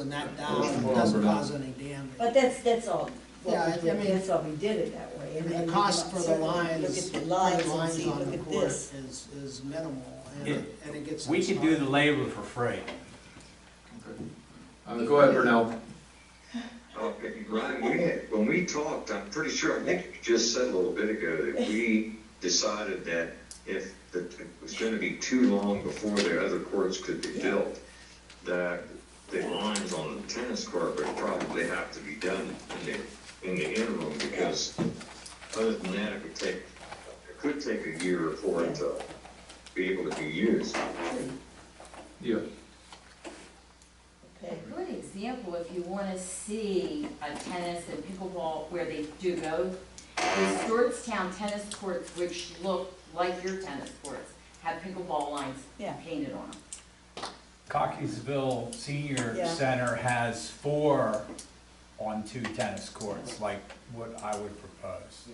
and not down, it doesn't cause any damage. But that's, that's all, Yeah, well, I mean- that's all, we did it that way. And and then the you cost for look- the lines, Look for at the the lines and lines see, on look the at court this. is, is minimal, and Yeah. it and it gets. We could do the installed. labor for free. Uh, Go ahead, Vernell. Uh, Ryan, we had, when we talked, I'm pretty sure, I think you just said a little bit ago that we decided that if the, it was gonna be too long before the other courts could be built, that the lines on the tennis court would probably have to be done in the, in the interim, because other than that, it would take, it could take a year for it to be able to be used. Yeah. Okay. A good example, if you want to see a tennis and pickleball where they do go, is Georgetown tennis courts, which look like your tennis courts, have pickleball lines Yeah. painted on them. Cockeysville Senior Yeah. Center has four on two tennis courts, like what I would propose.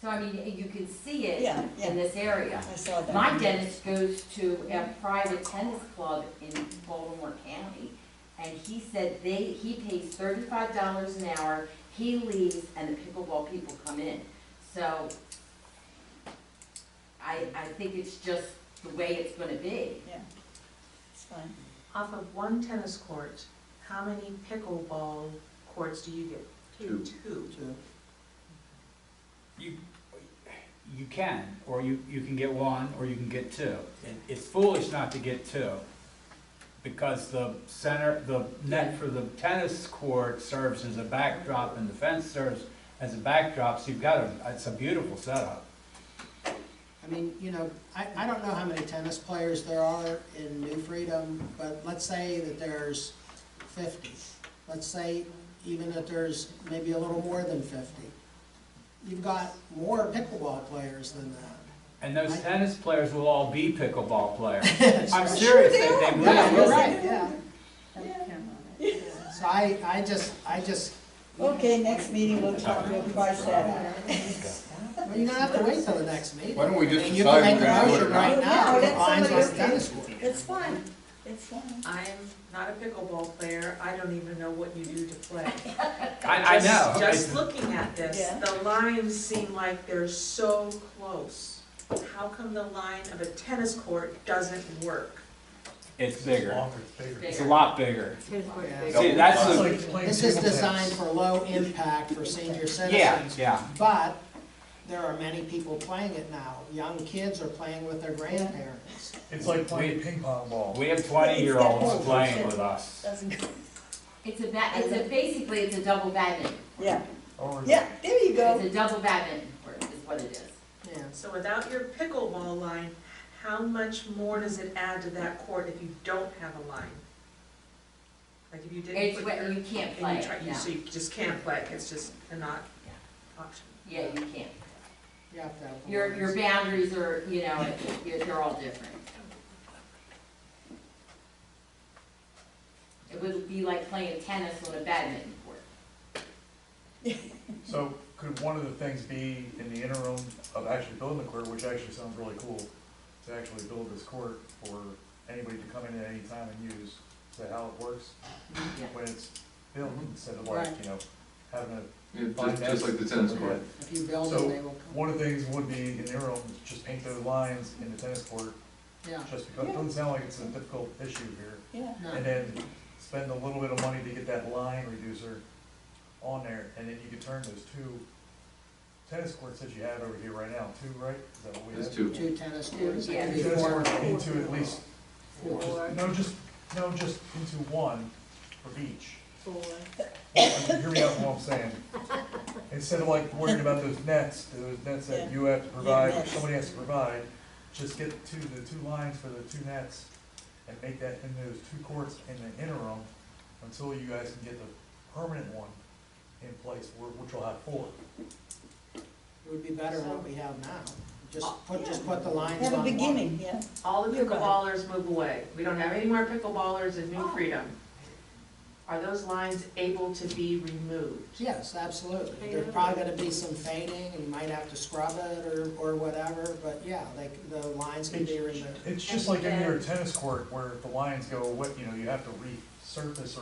So I mean, you can see Yeah, it yeah. in this area. I saw that. My dentist goes to a private tennis club in Baltimore County, and he said they, he pays thirty-five dollars an hour, he leaves, and the pickleball people come in. So I, I think it's just the way it's gonna be. It's fine. Off of one tennis court, how many pickleball courts do you get? Two. Two. Two. You, you can, or you, you can get one, or you can get two. It- It's foolish not to get two, because the center, the net for the tennis court serves as a backdrop, and the fence serves as a backdrop, so you've got a, it's a beautiful setup. I mean, you know, I, I don't know how many tennis players there are in New Freedom, but let's say that there's fifty. Let's say even that there's maybe a little more than fifty. You've got more pickleball players than that. And those I- tennis players will all be pickleball players. I'm Sure serious, they, they will. Yeah, you're right, yeah. Yeah. So I, I just, I just, Okay, next meeting we'll talk, we'll price that out. well, you don't have to wait till the next meeting. Why don't we just I mean, you can decide make we're a motion gonna do it now? right now, No, if it let aligns somebody with the tennis court. It's fine, it's fine. I'm not a pickleball player, I don't even know what you do to play. I, I know. Just- It's- Just looking at this, Yeah. the lines seem like they're so close. How come the line of a tennis court doesn't work? It's bigger. It's a Bigger. lot bigger. Yeah. See, that's the, This is designed for low impact for senior yeah, citizens, yeah. but there are many people playing it now. Young kids are playing with their grandparents. It's like playing ping pong ball. We have twenty-year-olds playing with us. Doesn't go- It's a ba, it's a, basically, it's a double badminton. Yeah, Or- yeah, there you It's go. a double badminton court is what it is. Yeah. So without your pickleball line, how much more does it add to that court if you don't have a line? Like if you didn't It's put what, your, you can't play and you it, try, you, no. so you just can't play, it. it's just a not option. Yeah, you can't. You have to have the Your, your lines. boundaries are, you know, you're- they're all different. It would be like playing tennis on a badminton court. So could one of the things be in the interim of actually building the court, which actually sounds really cool, to actually build this court for anybody to come in at any time and use? Is that how it works? Yeah. When it's built instead of like, you know, having a, Yeah, Mm-hmm. Just just like the tennis court. If you build So, them, they will come. one of the things would be in the interim, just paint those lines in the tennis court, Yeah, just because, it doesn't sound like it's a difficult issue here. Yeah. no, and then spend a little bit of money to get that line reducer on there, and then you could turn those two tennis courts that you have over here right now, two, right? Is that what we That's have? two. two tennis courts, Yeah. maybe Tennis four. courts into at least, Four. just- no, just, no, just into one for each. Well, Hear me out, what I'm saying. Instead of like worrying about those nets, those nets that Yeah. you have to provide, or nets. somebody has to provide, just get two, the two lines for the two nets and make that in those two courts in the interim until you guys can get the permanent one in place, wh- which will have four. It would be better than what we have now. Just put, just put the lines on Oh, Have a one. beginning, yeah. All the You're right. pickleballers move away. We don't have any more pickleballers in Oh. New Freedom. Are those lines able to be removed? Yes, absolutely. There's probably gonna be some fading, and you might have to scrub it or, or whatever, but yeah, like, the lines can be removed. It's just like any other tennis court where if the lines go, what, you know, you have to re, surface